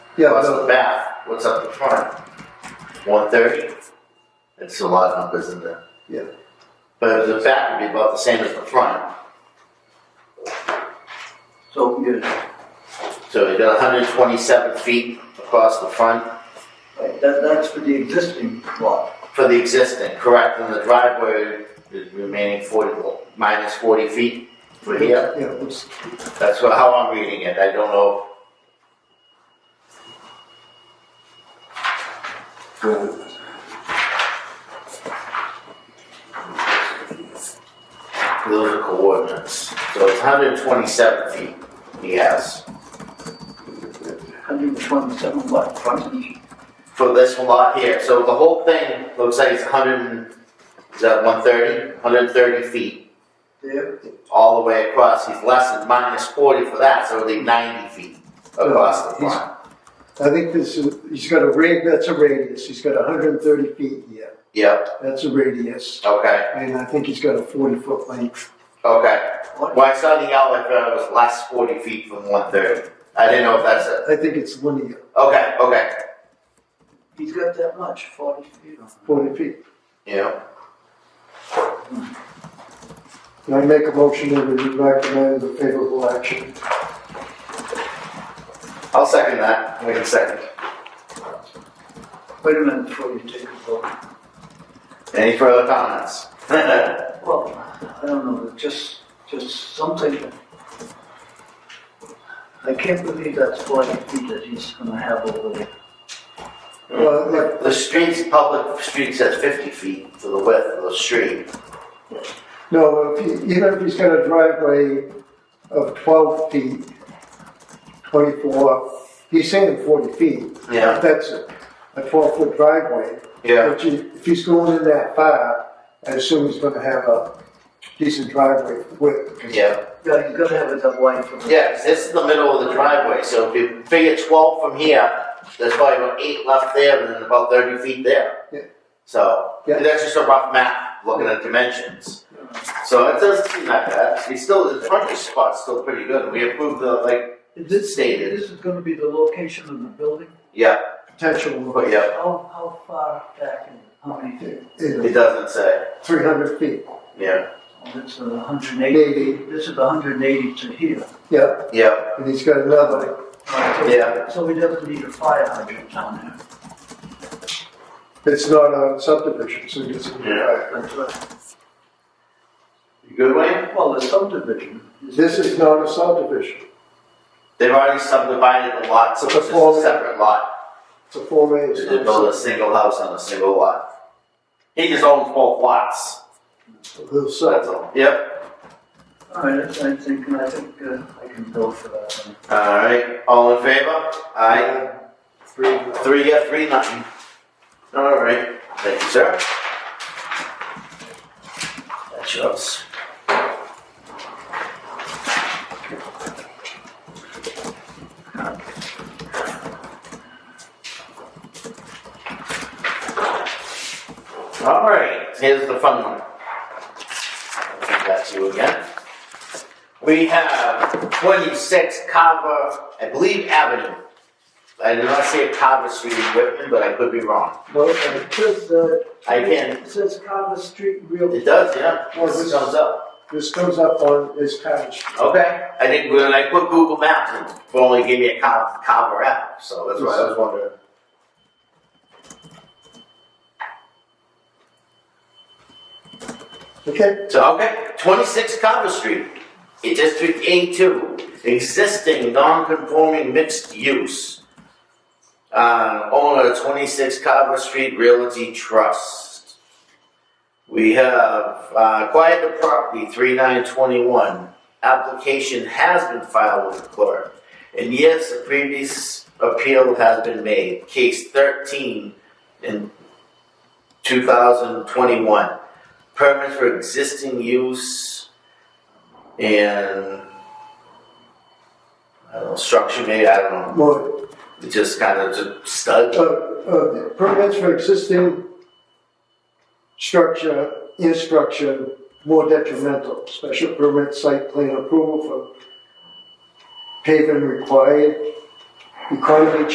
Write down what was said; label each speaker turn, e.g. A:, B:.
A: Yeah, uh,
B: What's the
A: no,
B: back? What's up the front? One thirty? It's a lot of numbers in there.
A: Yeah.
B: But the back would be about the same as the front,
C: So we get it.
B: so you got hundred and twenty-seven feet across the front
C: Right, That, that's for the existing lot.
B: for the existing, correct? And the driveway is remaining forty, well, minus forty feet for here.
A: yeah, it's-
B: That's what- how I'm reading it, I don't know. Those are coordinates, so it's hundred and twenty-seven feet, yes,
C: 127 lot frontage.
B: for this lot here, so the whole thing looks like it's hundred and, is that one thirty? Hundred and thirty feet,
C: There,
B: all the way across, he's less than minus forty for that, so it'll be ninety feet across the
A: He's-
B: front.
A: I think this is, he's got a rad, that's a radius, he's got hundred and thirty feet here,
B: Yep,
A: that's a radius.
B: okay,
A: And I think he's got a forty foot length.
B: okay.
C: what,
B: When I saw the outlet, it was last forty feet from one thirty. I didn't know if that's it.
A: I think it's linear,
B: Okay, okay.
C: he's got that much, 40 feet.
A: forty feet.
B: Yeah.
A: And I make a motion that we recommend the favorable action.
B: I'll second that. Wait a second.
C: Wait a minute before you take a vote.
B: Any further comments?
C: Well, I don't know, just, just something. I can't believe that's 40 feet that he's gonna have over there.
A: Well, like,
B: The streets, public streets has fifty feet for the width of the street.
A: no, if he, even if he's got a driveway of twelve feet, twenty-four, he's saying forty feet.
B: Yeah.
A: That's a, a twelve foot driveway.
B: Yeah.
A: But you- if he's going in that far, I assume he's gonna have a decent driveway width.
B: Yeah.
C: Yeah, he's gotta have it that wide for the.
B: Yeah, 'cause this is the middle of the driveway, so if you figure twelve from here, there's probably about eight left there and then about thirty feet there.
A: Yeah.
B: So,
A: Yeah.
B: that's just a rough map, looking at dimensions. So it doesn't seem that bad. It's still, the frontage spot's still pretty good. We approved the, like,
C: Is this,
B: Stated.
C: this is gonna be the location of the building?
B: yeah,
A: Potential,
B: but yeah,
C: How, how far back and how many feet?
B: it doesn't say.
A: three hundred feet,
B: Yeah,
C: Oh, That's a hundred and eighty,
A: maybe,
C: this is a hundred and eighty to here.
A: yeah,
B: yeah,
A: and he's got another,
B: Yeah.
C: So he doesn't need a fire hydrant down there.
A: it's not a subdivision, so he doesn't.
B: Yeah.
C: That's right.
B: You good, Wayne?
C: Well, the subdivision.
A: This is not a subdivision,
B: They've already subdivided the lot, so it's just a separate lot.
A: it's a Form A.
B: They did build a single house on a single lot. He just owns both lots,
A: Little
B: so that's
A: sub,
B: all. Yep.
C: All right, that's- I think, I think uh, I can go for that one.
B: Alright, all in favor? Aye.
A: three,
B: Three, yeah, three, nothing. Alright, thank you, sir. That's yours. All right, here's the fun one. That's you again. We have twenty-six Carver, I believe Avenue. I did not see a Carver Street in Whitman, but I could be wrong.
A: no, uh,
C: It says, uh.
B: I can,
C: It says Carver Street Real.
B: it does, yeah,
A: Well,
B: this
A: this-
B: comes up.
A: this goes up on his cottage,
B: Okay, I think when I put Google Maps, it only gave me a Car- Carver app, so that's why I was wondering.
A: okay?
B: So, okay, 26 Copper Street, in District A2, existing non-conforming mixed use. Uh, owner 26 Copper Street Realty Trust. We have uh, acquired the property 3921. Application has been filed with the clerk. And yes, a previous appeal has been made, case 13 in 2021 permit for existing use and I don't know, structure maybe, I don't know.
A: Well,
B: It just kind of just
A: uh,
B: stud.
A: uh, permits for existing structure, in structure, more detrimental, special permit site plan approval for paving required, economy